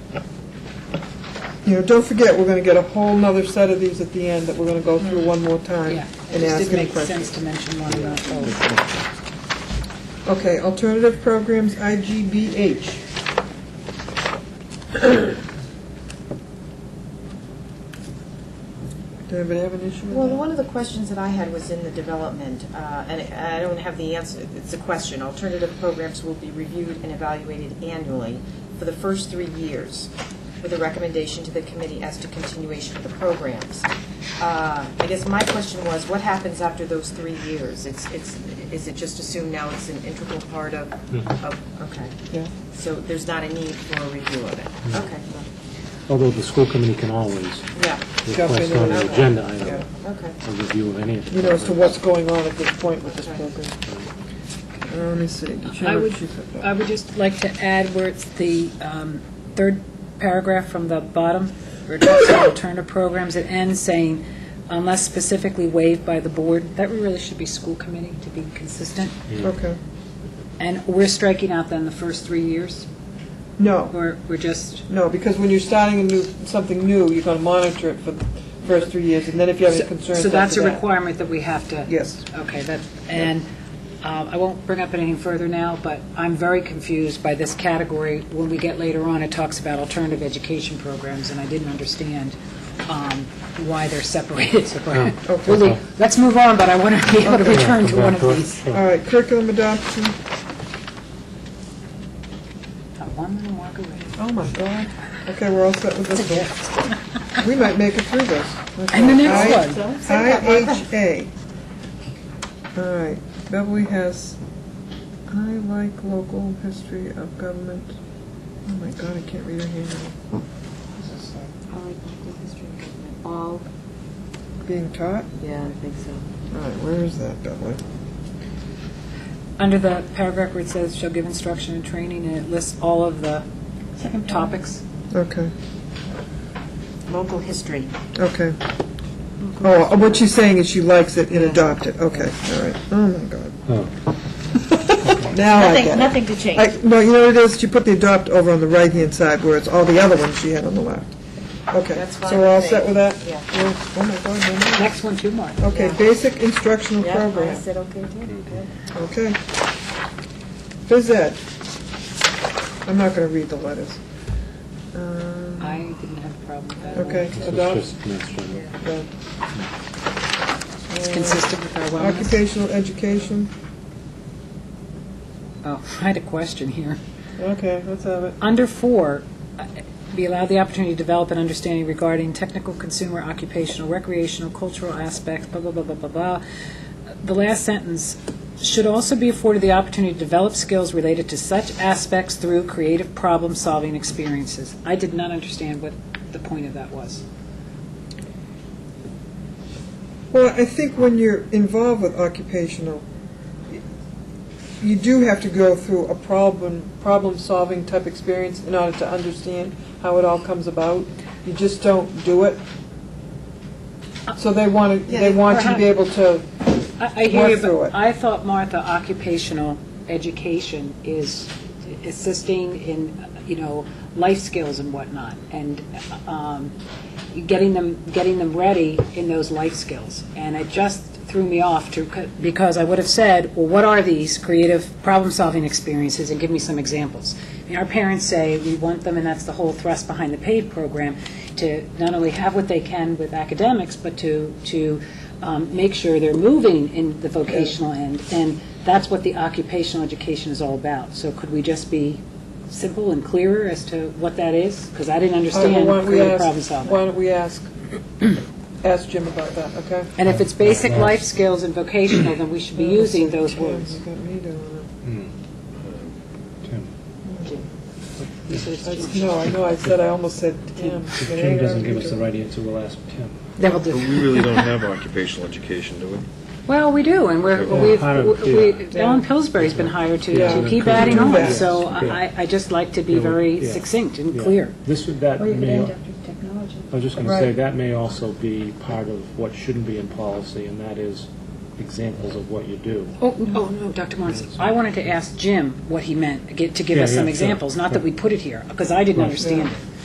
you know, don't forget, we're going to get a whole nother set of these at the end that we're going to go through one more time Mm. Yeah, it and just ask didn't any make questions. sense to mention one about both. Okay, alternative programs, IGBH. Does anybody have an issue with that? Well, one of the questions that I had was in the development, uh, and I don't have the answer, it's a question. Alternative programs will be reviewed and evaluated annually for the first three years with a recommendation to the committee as to continuation of the programs. Uh, I guess my question was, what happens after those three years? It's, it's, is it just assumed now it's an integral part of, of, okay. Yeah. So there's not a need for a review of it? Okay, Although the school committee can always yeah, Jump request in on an and- agenda Yeah. item okay. a review of any of the... You know, as to what's going on at this point with this Okay. program. Uh, Let me see. Did you I have- would, she said that. I would just like to add where it's the um, third paragraph from the bottom, where it talks about alternative programs, it ends saying, unless specifically waived by the board, that really should be school committee to be consistent. Okay. And we're striking out then the first three years, No, or we're just, no, because when you're starting a new, something new, you're going to monitor it for the first three years, and then if you have any concerns so that's a after that- requirement that we have to. Yes. Okay, that, and um, I won't bring up anything further now, but I'm very confused by this category. When we get later on, it talks about alternative education programs, and I didn't understand um, why they're separated. So, Okay. really, Let's move on, but I want to be able to return to one of Back these. All right, curriculum adoption. Uh, One little walk away. Oh, my God. Okay, we're all set with this one. We might make it through this. And the next Okay. one. IHA. All right, Beverly has, I like local history of government. Oh my God, I can't read her handwriting. I like local history and government. All? Being taught? Yeah, I think so. All right, where is that, Beverly? Under the paragraph where it says, "Shall give instruction and training," and it lists all of the topics. Okay, Local history. okay. Oh, what she's saying is she likes it and adopt it. Okay, all right. Oh my God. Oh, Now I get it. to change. I- No, you know what it is, she put the adopt over on the right-hand side where it's all the other ones she had on the left. Okay, That's so fine we're all with me. set with that? Yeah. Oh oh my God, no, no. Next one, two more. Okay, Yeah. basic instructional Yeah, I program, said okay too. okay. Phys ed. I'm not going to read the letters. Um, I didn't have a problem with that. at all. Okay, so it's adopt, just mass general. uh, It's consistent with our wellness. occupational education, Oh, I had a question here. okay, let's have it. Under four, uh, be allowed the opportunity to develop an understanding regarding technical, consumer, occupational, recreational, cultural aspects, blah, blah, blah, blah, blah, blah. The last sentence, should also be afforded the opportunity to develop skills related to such aspects through creative problem-solving experiences. I did not understand what the point of that was. Well, I think when you're involved with occupational, you do have to go through a problem, problem-solving type experience in order to understand how it all comes about. You just don't do it. So they want to, they want you to be able to, uh, I I hear you, Work through it. but I thought, Martha, occupational education is assisting in, you know, life skills and whatnot, and um, getting them, getting them ready in those life skills. And it just threw me off to, because I would have said, well, what are these creative problem-solving experiences, and give me some examples. I mean, our parents say we want them, and that's the whole thrust behind the PAVE program, to not only have what they can with academics, but to, to um, make sure they're moving in the vocational end, and that's what the occupational education is all about. So could we just be simple and clearer as to what that is? Because I didn't why understand don't we creative problem ask, why solving. don't we ask, ask Jim about that, okay? And if it's basic life skills and vocational, then we should be using those Okay, words. You got me doing Hmm. Tim it. No, I know, I said, I almost said Tim. Jim doesn't give us the right answer, we'll ask Tim. That will do. But we really don't have occupational education, do we? Well, we do, and we're, Yeah. we've, Hired, we- we- yeah. Alan Pillsbury's been hired to, Yeah. to keep adding Yeah. on, so Yeah. I, I just like to be Yeah, we- very yeah. succinct and Yeah. clear. This would, that Or you could may, end I after technology. was just going to say, Right. that may also be part of what shouldn't be in policy, and that is examples of what you do. Oh, oh, no, Dr. Morris, I wanted to ask Jim what he meant, get- to give Yeah, us yeah, some sure. examples, not that we put it here, because I didn't Right. understand it.